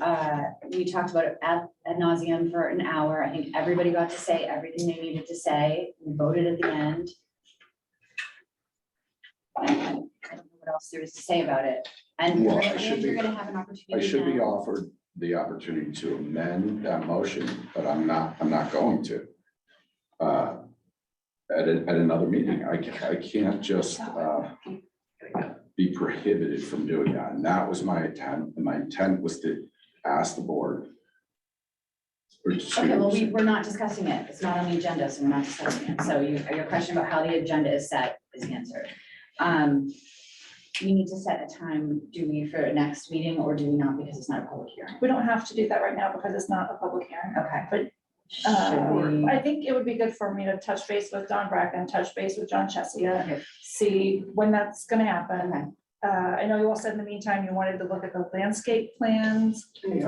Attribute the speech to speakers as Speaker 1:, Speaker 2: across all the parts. Speaker 1: uh, we talked about it ad, ad nauseum for an hour. I think everybody got to say everything they needed to say. We voted at the end. I don't know What else there is to say about it? And
Speaker 2: Well,
Speaker 1: you're
Speaker 2: I
Speaker 1: gonna- and
Speaker 2: should
Speaker 1: you're
Speaker 2: be-
Speaker 1: gonna have an
Speaker 2: I
Speaker 1: opportunity.
Speaker 2: should be
Speaker 1: now.
Speaker 2: offered the opportunity to amend that motion, but I'm not, I'm not going to. Uh, At, a- at another meeting, I can't, I can't just uh, be prohibited from doing that. And that was my intent, and my intent was to ask the board. or to-
Speaker 1: Okay, well, we, we're not discussing it. It's not on the agenda, so we're not discussing it. So your, your question about how the agenda is set is answered. Um, we need to set a time, do we, for next meeting or do we not because it's not a public hearing?
Speaker 3: We don't have to do that right now because it's not a public hearing.
Speaker 1: Okay.
Speaker 3: But,
Speaker 1: Should
Speaker 3: Um,
Speaker 1: we?
Speaker 3: I think it would be good for me to touch base with Don Bracken, touch base with John Chesia,
Speaker 1: Okay,
Speaker 3: see when that's gonna happen.
Speaker 1: okay.
Speaker 3: Uh, I know you all said in the meantime, you wanted to look at the landscape plans,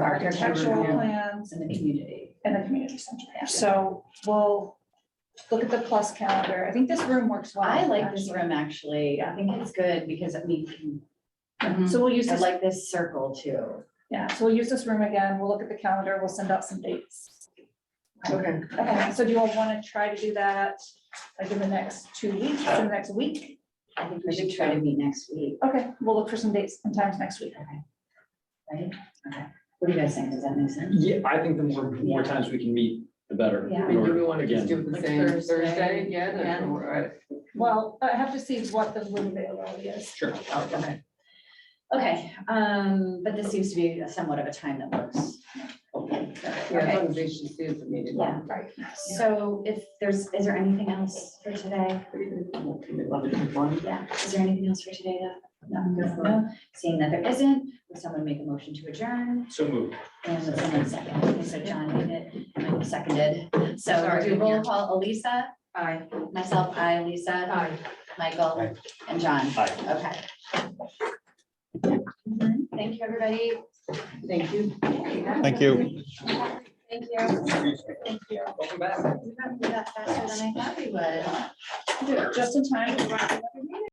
Speaker 3: architectural plans,
Speaker 1: It's in the community.
Speaker 3: and the community center. So we'll look at the plus calendar. I think this room works well.
Speaker 1: I like this room, actually. I think it's good because I mean,
Speaker 3: actually. So we'll use
Speaker 1: I
Speaker 3: this,
Speaker 1: like this circle too.
Speaker 3: yeah, so we'll use this room again. We'll look at the calendar. We'll send out some dates.
Speaker 4: Okay,
Speaker 3: Okay, so do you all want to try to do that like in the next two weeks, in the next week?
Speaker 1: I think we should try to meet next week,
Speaker 3: Okay, we'll look for some dates and times next week.
Speaker 1: right? Okay. What do you guys think? Does that make sense?
Speaker 5: Yeah, I think the more, more times we can meet, the better.
Speaker 1: Yeah.
Speaker 4: and do we want to
Speaker 5: Again.
Speaker 4: just do the
Speaker 6: Like
Speaker 4: same
Speaker 6: Thursday,
Speaker 4: Thursday again?
Speaker 6: yeah.
Speaker 4: or-
Speaker 3: Well, I have to see what the room availability is.
Speaker 5: Sure.
Speaker 1: Okay. Okay, um, but this seems to be somewhat of a time that works. Okay.
Speaker 4: Yeah, as long as they should see the meeting.
Speaker 1: Yeah,
Speaker 3: Right.
Speaker 1: so if there's, is there anything else for today?
Speaker 4: Eleven to one.
Speaker 1: Yeah, is there anything else for today though? No, no, seeing that there isn't, would someone make a motion to adjourn?
Speaker 5: So moved.
Speaker 1: And would someone second? Okay, so John made it, Michael seconded. So we'll do roll call, Elisa,
Speaker 6: Aye.
Speaker 1: myself, I, Lisa,
Speaker 6: Aye.
Speaker 1: Michael, and John.
Speaker 5: Aye.
Speaker 1: Okay. Thank you, everybody.
Speaker 6: Thank you.
Speaker 7: Thank you.
Speaker 1: Thank you.
Speaker 3: Thank you.
Speaker 5: Welcome back.
Speaker 1: We got through that faster than I thought we would.
Speaker 3: Just in time. to wrap it up.